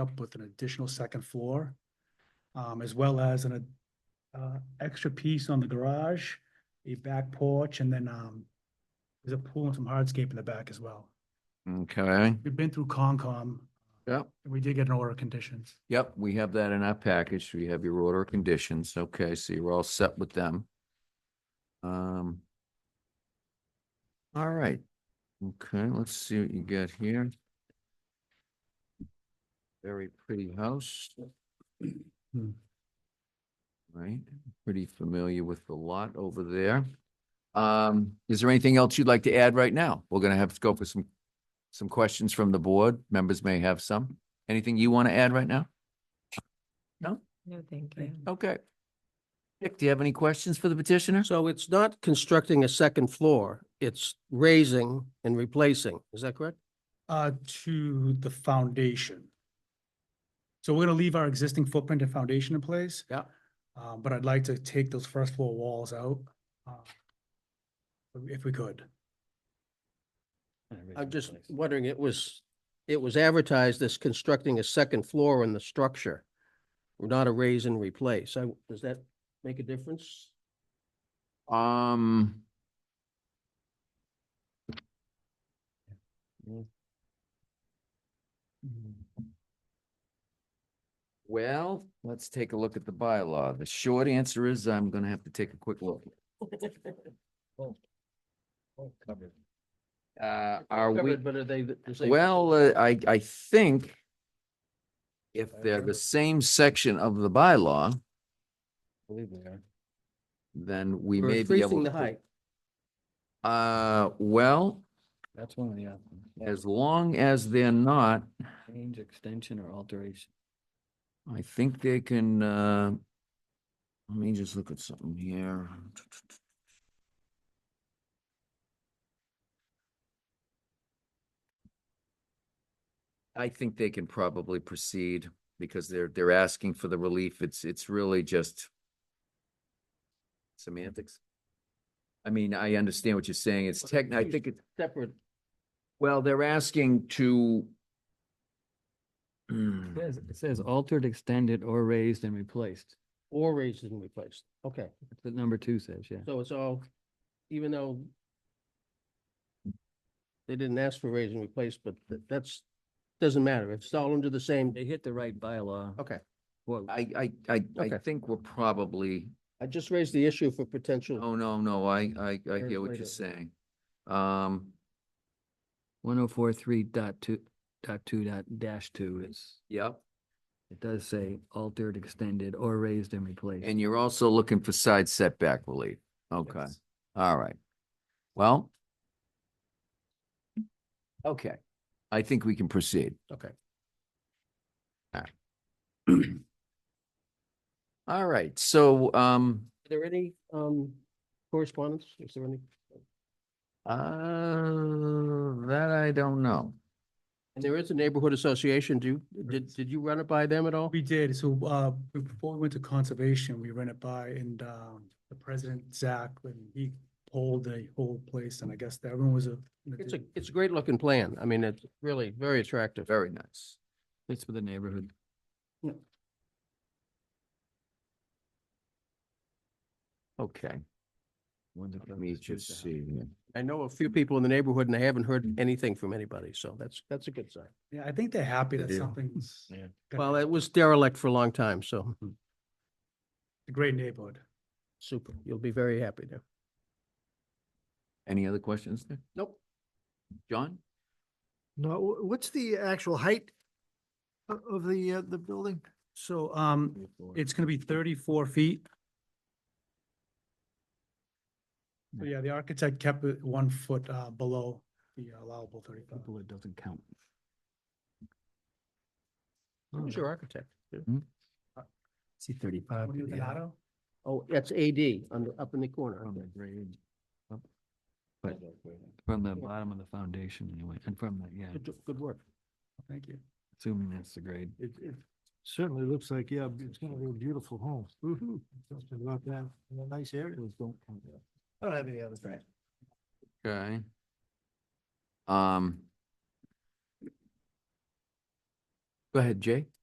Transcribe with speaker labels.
Speaker 1: up with an additional second floor, um, as well as an, uh, extra piece on the garage, a back porch, and then, um, there's a pool and some hardscape in the back as well.
Speaker 2: Okay,
Speaker 1: We've been through Concom.
Speaker 2: Yep.
Speaker 1: And we did get an order of conditions.
Speaker 2: yep, we have that in our package. We have your order of conditions. Okay, so you're all set with them. Um. All right. Okay, let's see what you got here. Very pretty house.
Speaker 1: Hmm.
Speaker 2: Right, pretty familiar with the lot over there. Um, is there anything else you'd like to add right now? We're gonna have to go for some, some questions from the board. Members may have some. Anything you want to add right now?
Speaker 3: No, thank
Speaker 1: Thank
Speaker 3: you.
Speaker 2: Okay. Dick, do you have any questions for the petitioner?
Speaker 4: So it's not constructing a second floor, it's raising and replacing, is that correct?
Speaker 1: Uh, to the foundation. So we're gonna leave our existing footprint and foundation in place.
Speaker 2: Yeah.
Speaker 1: Uh, but I'd like to take those first floor walls out, uh, if we could.
Speaker 4: I'm just wondering, it was, it was advertised as constructing a second floor in the structure, not a raise and replace. I, does that make a difference?
Speaker 2: Um. Well, let's take a look at the bylaw. The short answer is I'm gonna have to take a quick look. Uh, are we?
Speaker 4: Covered, But are they, the the same?
Speaker 2: Well, uh, I, I think if they're the same section of the bylaw, then we
Speaker 4: We're
Speaker 2: may be able
Speaker 4: increasing the
Speaker 2: to.
Speaker 4: height.
Speaker 2: Uh, well,
Speaker 5: That's one of the uh, options.
Speaker 2: as long as they're not,
Speaker 5: Change, extension, or alteration.
Speaker 2: I think they can, uh, let me just look at something here. I think they can probably proceed because they're, they're asking for the relief. It's, it's really just semantics. I mean, I understand what you're saying. It's
Speaker 4: Well, they're
Speaker 2: tech, I
Speaker 4: two
Speaker 2: think it's
Speaker 4: Separate,
Speaker 2: well, they're asking to hmm,
Speaker 5: It says- It says altered, extended, or raised and replaced.
Speaker 4: or raised and replaced, okay,
Speaker 5: That's what number two says, yeah.
Speaker 4: so it's all, even though they didn't ask for raise and replace, but th- that's, doesn't matter, it's all under the same,
Speaker 5: They hit the right bylaw.
Speaker 4: okay.
Speaker 5: Well,
Speaker 2: I, I, I, I
Speaker 4: Okay.
Speaker 2: think we're probably,
Speaker 4: I just raised the issue for potential,
Speaker 2: oh, no, no, I, I, I hear what
Speaker 5: Translate
Speaker 2: you're
Speaker 5: it.
Speaker 2: saying. Um,
Speaker 5: one oh four three dot two, dot two dot dash two is,
Speaker 2: yep,
Speaker 5: it does say altered, extended, or raised and replaced.
Speaker 2: and you're also looking for side setback relief. Okay, all right. Well. Okay, I think we can proceed.
Speaker 4: okay.
Speaker 2: All right, so, um,
Speaker 4: Are there any um correspondence? Is there any,
Speaker 2: uh, that I don't know.
Speaker 4: and there is a neighborhood association. Do you, did, did you run it by them at all?
Speaker 1: We did, so, uh, before we went to conservation, we ran it by and, um, the president, Zach, and he polled the whole place, and I guess that everyone was a.
Speaker 4: It's a, it's a great looking plan. I mean, it's really very attractive.
Speaker 2: Very nice.
Speaker 5: It's for the neighborhood.
Speaker 2: Okay, let me just see. here.
Speaker 4: I know a few people in the neighborhood and I haven't heard anything from anybody, so that's, that's a good sign.
Speaker 1: Yeah, I think they're happy that
Speaker 2: deal.
Speaker 1: something's.
Speaker 5: Yeah.
Speaker 1: gonna
Speaker 4: Well, it was derelict for a long time, so
Speaker 1: A great neighborhood.
Speaker 4: super. You'll be very happy there.
Speaker 2: Any other questions there?
Speaker 4: Nope.
Speaker 2: John?
Speaker 6: No, wh- what's the actual height o- of the, uh, the building?
Speaker 1: So, um, it's gonna be thirty-four feet. So, Yeah, the architect kept it one foot, uh, below the allowable thirty-five.
Speaker 5: People, it doesn't count. Oh,
Speaker 4: Who's your architect?
Speaker 5: See thirty-five.
Speaker 1: What do you think, Otto?
Speaker 4: Oh, that's AD under, up in the corner.
Speaker 5: From the grade. up, But from the bottom of the foundation anyway, and from the, yeah,
Speaker 4: Good, good work.
Speaker 1: Thank you.
Speaker 5: assuming that's the grade.
Speaker 6: It, it certainly looks like, yeah, it's gonna be a beautiful home. Something about that, in a nice area. I don't have any other questions.
Speaker 2: Okay. Um. Go ahead, Jay.